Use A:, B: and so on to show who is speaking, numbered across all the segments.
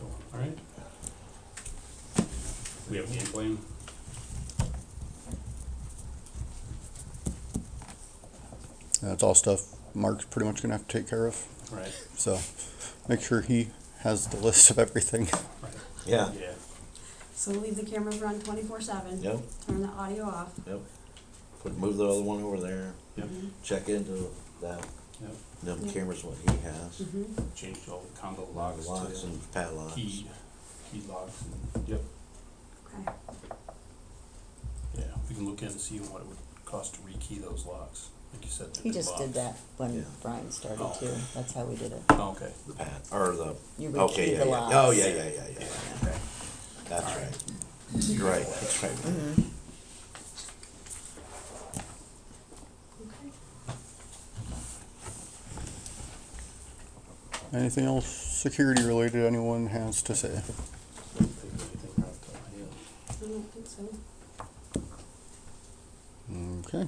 A: All right. We have game plan.
B: That's all stuff Mark's pretty much gonna have to take care of.
A: Right.
B: So make sure he has the list of everything.
A: Right.
C: Yeah.
A: Yeah.
D: So leave the cameras run twenty-four seven.
C: Yep.
D: Turn the audio off.
C: Yep. Put move the other one over there.
A: Yep.
C: Check into that.
A: Yep.
C: Them
D: Yep.
C: cameras what he has.
D: hmm
A: Changed all the combo locks
C: Locks
A: to
C: and padlocks.
A: key, key locks. and- Yep.
D: Okay.
A: Yeah. We can look in and see what it would cost to rekey those locks. Like you said. they're
E: He
A: big
E: just did that
A: locks.
C: Yeah.
E: when Brian started
A: Oh.
E: too. That's how we did it.
A: Oh, okay.
C: The pad or the.
E: You would
C: okay.
E: key
C: yeah,
E: the
C: yeah.
E: locks.
C: Oh yeah, yeah, yeah, yeah.
A: Okay.
C: That's right. You're right. That's right.
E: Mm-hmm.
D: Okay.
B: Anything else security related anyone has to say?
A: Don't think of anything off the top of my head.
D: I don't think so.
B: Okay.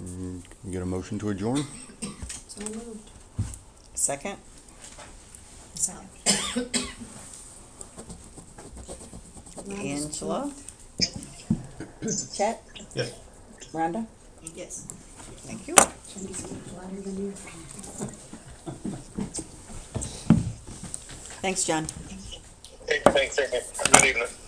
B: Mm, Get a motion to adjourn?
D: So moved.
E: Second?
D: Second.
E: Angela? Chet?
A: Yes.
E: Rhonda?
D: Yes.
E: Thank you.
D: Jenny's louder than you.
E: Thanks, John.
F: Hey, thanks, Eric. Good evening.